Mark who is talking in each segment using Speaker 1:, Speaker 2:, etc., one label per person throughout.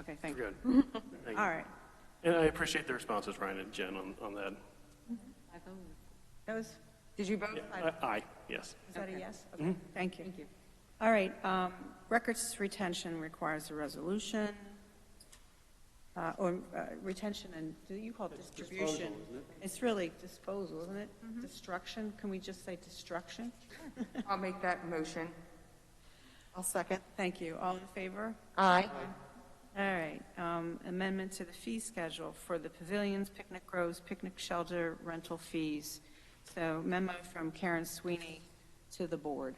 Speaker 1: Okay, thank you.
Speaker 2: You're good. Thank you.
Speaker 3: All right,
Speaker 2: And I appreciate the responses, Ryan and Jen, on, on that.
Speaker 3: that was,
Speaker 1: Did you vote?
Speaker 2: Yeah, I- Aye, yes.
Speaker 3: is that a yes? Okay.
Speaker 1: Thank you. Thank you.
Speaker 3: All right, um, records retention requires a resolution, uh, or uh, retention and, do you call it distribution? It's really disposal, isn't it?
Speaker 1: Mm-hmm.
Speaker 3: Destruction, can we just say destruction?
Speaker 1: I'll make that motion.
Speaker 4: I'll second.
Speaker 3: Thank you, all in favor?
Speaker 4: Aye.
Speaker 3: All right, um, amendment to the fee schedule for the pavilions, picnic groves, picnic shelter, rental fees. So memo from Karen Sweeney to the board.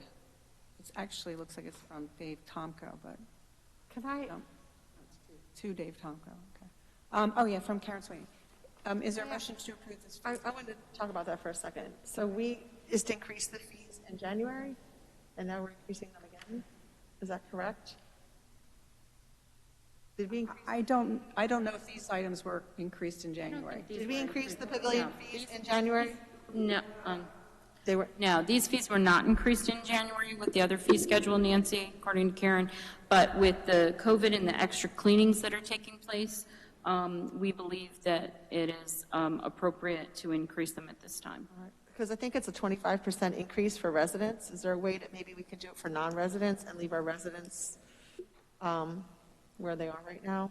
Speaker 3: It actually looks like it's from Dave Tomko, but
Speaker 4: Can I,
Speaker 3: No. To Dave Tomko, okay. Um, oh, yeah, from Karen Sweeney. Um, is there a motion to approve this?
Speaker 4: I, I wanted to talk about that for a second. So we just increased the fees in January, and now we're increasing them again? Is that correct? Did we, increase-
Speaker 3: I don't, I don't know if these items were increased in January.
Speaker 4: did we increase the pavilion fees in January?
Speaker 5: No, um,
Speaker 4: They were,
Speaker 5: no, these fees were not increased in January with the other fee schedule, Nancy, according to Karen, but with the COVID and the extra cleanings that are taking place, um, we believe that it is um, appropriate to increase them at this time.
Speaker 4: because I think it's a 25% increase for residents. Is there a way that maybe we can do it for non-residents and leave our residents um, where they are right now?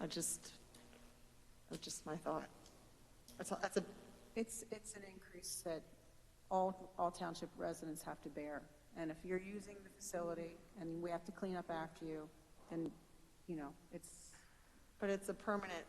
Speaker 4: I just, that's just my thought. That's, a- that's a,
Speaker 3: It's, it's an increase that all, all township residents have to bear. And if you're using the facility and we have to clean up after you, then, you know, it's,
Speaker 4: but it's a permanent,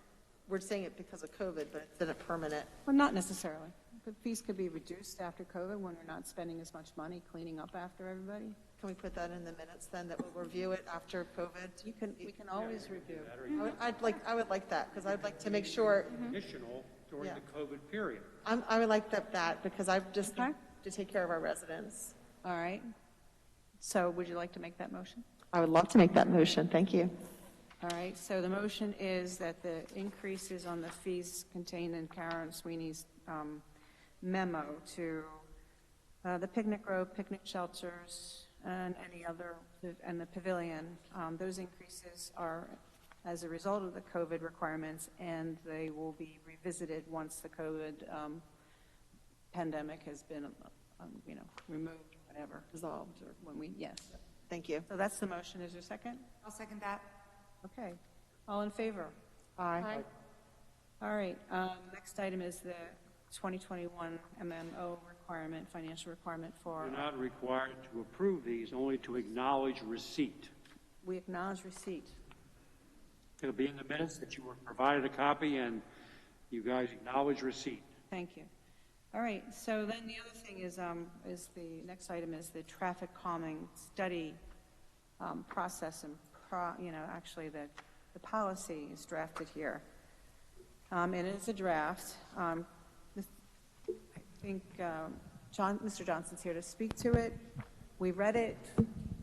Speaker 4: we're saying it because of COVID, but it's been a permanent.
Speaker 3: well, not necessarily. The fees could be reduced after COVID when we're not spending as much money cleaning up after everybody.
Speaker 4: Can we put that in the minutes then, that we'll review it after COVID?
Speaker 3: You can, we can always review.
Speaker 4: I would- I'd like, I would like that, because I'd like to make sure,
Speaker 3: Mm-hmm.
Speaker 6: Additional during
Speaker 4: Yeah.
Speaker 6: the COVID period.
Speaker 4: I'm, I would like that, that, because I've just,
Speaker 3: Okay.
Speaker 4: to take care of our residents.
Speaker 3: All right. So would you like to make that motion?
Speaker 4: I would love to make that motion, thank you.
Speaker 3: All right, so the motion is that the increases on the fees contained in Karen Sweeney's um, memo to uh, the picnic grove, picnic shelters, and any other, and the pavilion, um, those increases are as a result of the COVID requirements, and they will be revisited once the COVID um, pandemic has been, um, you know, removed, whatever, resolved, or when we, yes.
Speaker 4: Thank you.
Speaker 3: So that's the motion, is there a second?
Speaker 1: I'll second that.
Speaker 3: Okay, all in favor?
Speaker 4: Aye.
Speaker 3: All right, um, next item is the 2021 MMO requirement, financial requirement for,
Speaker 6: You're not required to approve these, only to acknowledge receipt.
Speaker 3: we acknowledge receipt.
Speaker 6: It'll be in the minutes that you were provided a copy and you guys acknowledge receipt.
Speaker 3: Thank you. All right, so then the other thing is, um, is the, next item is the traffic calming study um, process and, pro- you know, actually, the, the policy is drafted here. Um, It is a draft. Um, this- I think um, John, Mr. Johnson's here to speak to it. We read it.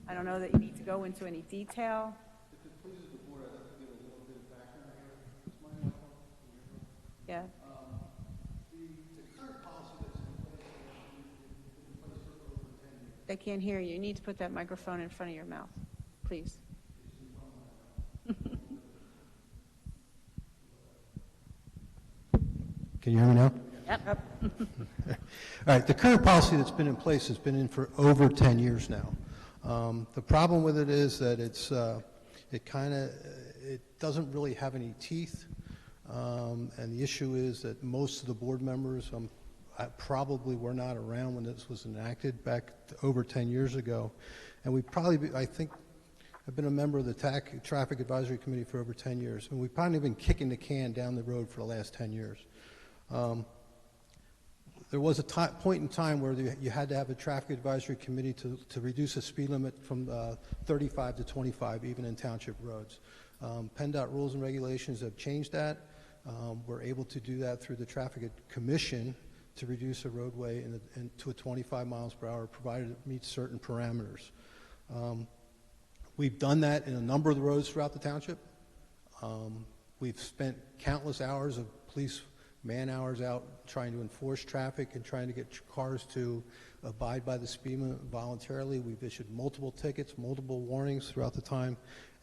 Speaker 3: I don't know that you need to go into any detail. Yeah. They can't hear you. You need to put that microphone in front of your mouth, please.
Speaker 7: Can you hear me now?
Speaker 5: Yep.
Speaker 7: All right, the current policy that's been in place has been in for over 10 years now. Um, The problem with it is that it's, uh, it kind of, it doesn't really have any teeth, Um, and the issue is that most of the board members, um, I probably were not around when this was enacted back t- over 10 years ago, and we probably, be- I think, I've been a member of the TAC, Traffic Advisory Committee for over 10 years, and we've probably been kicking the can down the road for the last 10 years there was a ti- point in time where you- you had to have a traffic advisory committee to, to reduce the speed limit from uh, 35 to 25, even in township roads. Um, PennDOT rules and regulations have changed that. Um, We're able to do that through the Traffic Ad- Commission to reduce a roadway in, the- in- to a 25 miles per hour, provided it meets certain parameters. Um, We've done that in a number of the roads throughout the township. Um, We've spent countless hours of police man-hours out trying to enforce traffic and trying to get tr- cars to abide by the speed limit voluntarily. We've issued multiple tickets, multiple warnings throughout the time,